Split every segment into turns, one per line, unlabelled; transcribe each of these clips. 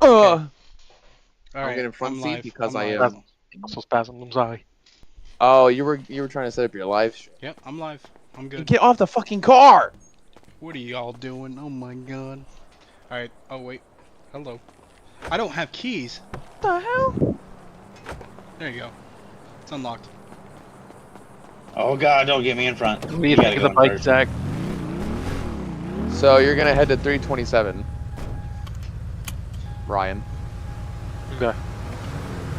Ugh.
All
I'm
right,
getting front
I'm
seat
live.
because
I'm
I
live.
am-
I'm-
Muscle spasm. I'm sorry.
Oh, you were you were trying to set up your live stream.
Yep, I'm live. I'm good.
Get off the fucking car!
What are y'all doing? Oh my god. All right. Oh wait. Hello. I don't have keys.
What the hell?
There you go. It's unlocked.
Oh god, don't get me in front.
What do you
gotta
think of the
go in
bike,
first.
Zach?
So you're gonna head to 327. Ryan,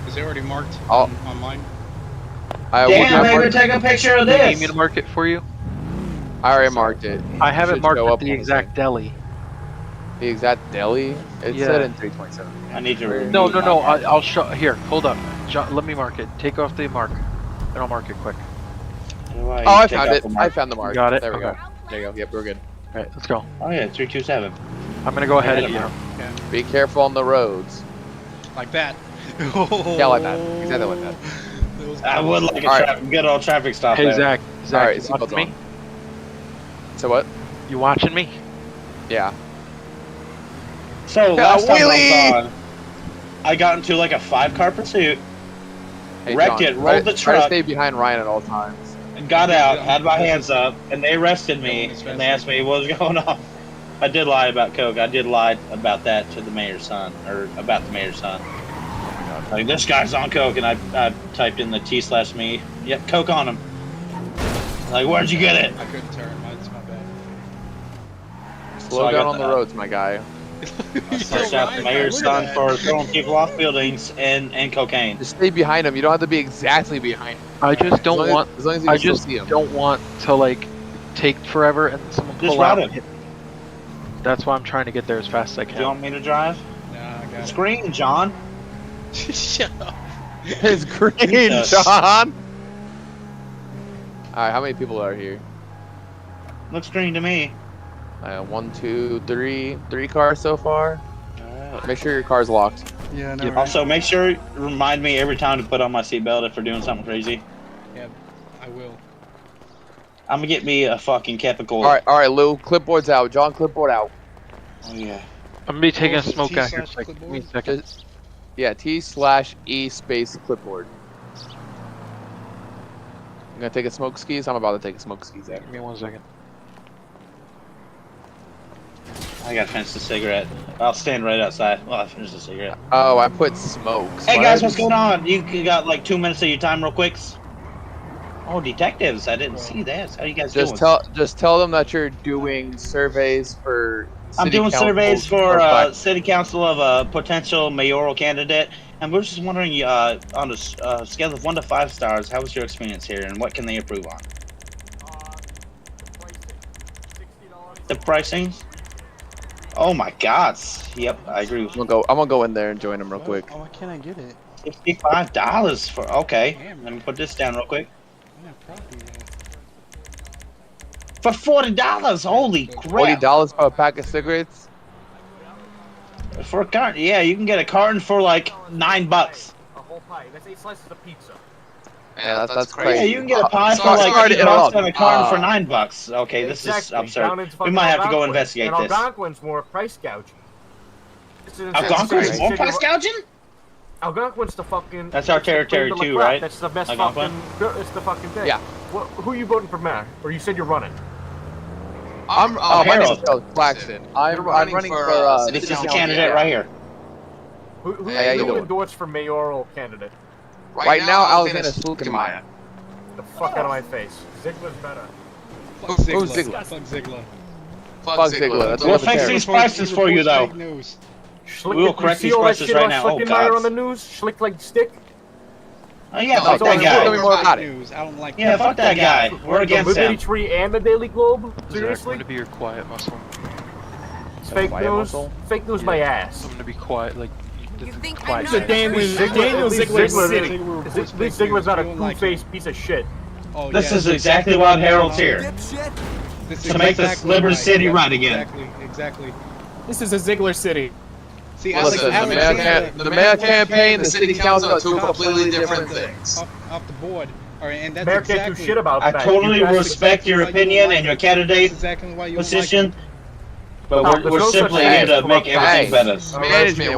Is it already marked
Oh.
on, on mine?
I, will
Damn,
not
I
mark-
gotta take a picture of
Do you need me
this.
to mark it for you?
I already marked it.
I have it
Should
marked
show
at
up
the
on the
exact
thing.
deli.
The exact deli. It
Yeah.
said in 327.
I need to.
No, no, no. I, I'll show. Here, hold up. Jo- let me mark it. Take off the mark, and I'll mark it quick.
Oh, I found it. I found the mark.
Got it?
There we
Okay.
go. There you go. Yep, we're good.
All right, let's go.
Oh yeah, three two seven.
I'm gonna go ahead of you.
Be careful on the roads.
Like that.
like that. Exactly like that.
That was
I would like a
Alright.
tra- good old traffic stop.
Hey,
there.
Zach. Zach,
All right,
you
seatbelts
watching me?
So what?
You watching me?
Yeah.
So
Yeah,
last time
wheelie!
I was on, I got into like a five car pursuit,
Hey,
Wrecked
John,
it, rolled
try to-
the
Try to
truck.
stay behind Ryan at all times.
got out, had my hands up, and they arrested
That
me
one is
and they asked me what was going on. I did lie about coke. I did lie about that to the mayor's son, or about the mayor's son. Like this guy's on coke, and I, I typed in the T slash me. Yep, coke on him. Like where'd you get it?
I couldn't turn. Mine's my bad.
Slow
I got
down on the
that.
roads, my guy.
You're
Search out
right,
the mayor's
look at
son
that.
for throwing people off buildings and, and cocaine.
Just stay behind him. You don't have to be exactly behind. Him.
I just
as long
don't
as-
want.
As, long as you
I
can still
just
see him.
don't want to like take forever and someone
Just
pull out
route
and hit me. That's why I'm trying to get there as fast as I
Do
can.
you want me to drive?
Nah, I got it.
Screen, John.
Shut up.
It's green,
Yes.
John. All right, how many people are here?
Looks green to me.
Uh, one, two, three, three cars so far. Make sure your car's locked.
Yeah, no.
Yeah,
right.
Also, make sure remind me every time to put on my seatbelt if we're doing something crazy.
I will.
I'm gonna get me a fucking Capicola.
All right, all right, Lou. Clipboard's out. John, clipboard out.
Oh, yeah.
I'm gonna be taking a
Close the
smoke
T
out here.
slash
Like, give me a
clipboard.
second.
Just- yeah, T slash E space clipboard. I'm gonna take a smoke skis. I'm about to take a smoke skis. After.
Give me one second.
I gotta finish the cigarette. I'll stand right outside while I finish the cigarette.
Oh, I put smokes.
Hey guys, what's going on? You you got like two minutes of your time, real quicks. Oh, detectives! I didn't see that. How you guys
Just
doing?
tell, just tell them that you're doing surveys for.
I'm
city
doing
council-
surveys for
or
uh, city council of a potential mayoral candidate, and we're just wondering, uh, on a s- uh, scale of one to five stars, how was your experience here, and what can they improve on? The pricing? Oh my God! Yep, I agree. with
I'm gonna go. I'm gonna go in there and join them real quick.
Oh, why can't I get it?
Fifty-five dollars for okay.
Damn.
Let me put this down real quick.
Yeah, probably. Yeah.
For forty dollars, holy
Forty
crap!
dollars for a pack of cigarettes.
For a carton, yeah, you can get a carton for like nine bucks.
A whole pie. That's eight slices of pizza.
Yeah, that's, that's
Yeah,
crazy.
you can get a pie for
Uh, sorry-
like
sorry to
eight bucks
interrupt.
and a carton for
Uh,
nine bucks. Okay, this is
Exactly. Down
absurd.
in fucking
might have to go
Algonquin.
investigate
and
this.
Algonquin's more price gouging. This is-
Algonquin's
Sorry.
more price gouging?
Algonquin's the fucking.
That's our
it's the cream
territory
de la
too,
crop.
right?
That's the best
Algonquin?
fucking. It's the fucking thing.
Yeah.
Wha who you voting for mayor? Or you said you're running?
I'm,
Oh,
uh,
my name
Harold.
is Charles Claxton. I'm,
You're
running, I'm running for. Uh,
city
This is the
council.
candidate right here.
Who, who,
Yeah, yeah,
who
you do it.
endorsed for mayoral candidate?
right now, Alexander Slukemeyer.
The fuck out of my face. Ziggler's better.
Fuck
Who- who's
Ziggler.
Ziggler?
Fuck Ziggler.
Fuck Ziggler, that's
We'll
what
fix
Terrible.
these prices for you though.
News.
Schlick,
will
you
correct
see
these
all that
prices
shit
right
on
now. Oh,
Schlickenmeyer
God.
on the news? Schlick like stick?
Oh yeah, fuck
it's
No,
that
all
Tell
guy.
me more about it.
News. I don't like
Yeah, fuck that guy. We're against
the Liberty
him.
Tree and the Daily Globe?
Zach, I'm
Seriously?
gonna be your quiet muscle.
It's fake
Why am I
news.
so-
Fake news,
Yeah.
my ass.
I'm gonna be quiet. Like you,
You
the
think
quiet
I'm not-
guy.
Daniel Ziegler- Ziegler- Is it- Lee Ziegler's not a
We don't like
two-faced piece of shit.
Oh,
This
yeah.
is exactly what Harold's here.
This
to make this Liberty City right again.
Exactly, exactly.
This is a Ziggler city.
See,
Listen, the mayor,
Alexander-
cam- the mayor campaign, the city council are two
Cops
completely
like that
different
off the-
things.
Off, off the board. All right, and that's
Mayor
exactly.
can't do shit about
I
that.
totally
You guys-
respect your opinion and your
That's
candidate
exactly why you don't like it.
position, but
No,
we're,
there's
we're
no such
simply
thing
here
as
to make
corrupt
everything
guys.
better.
Arrest me.
Management,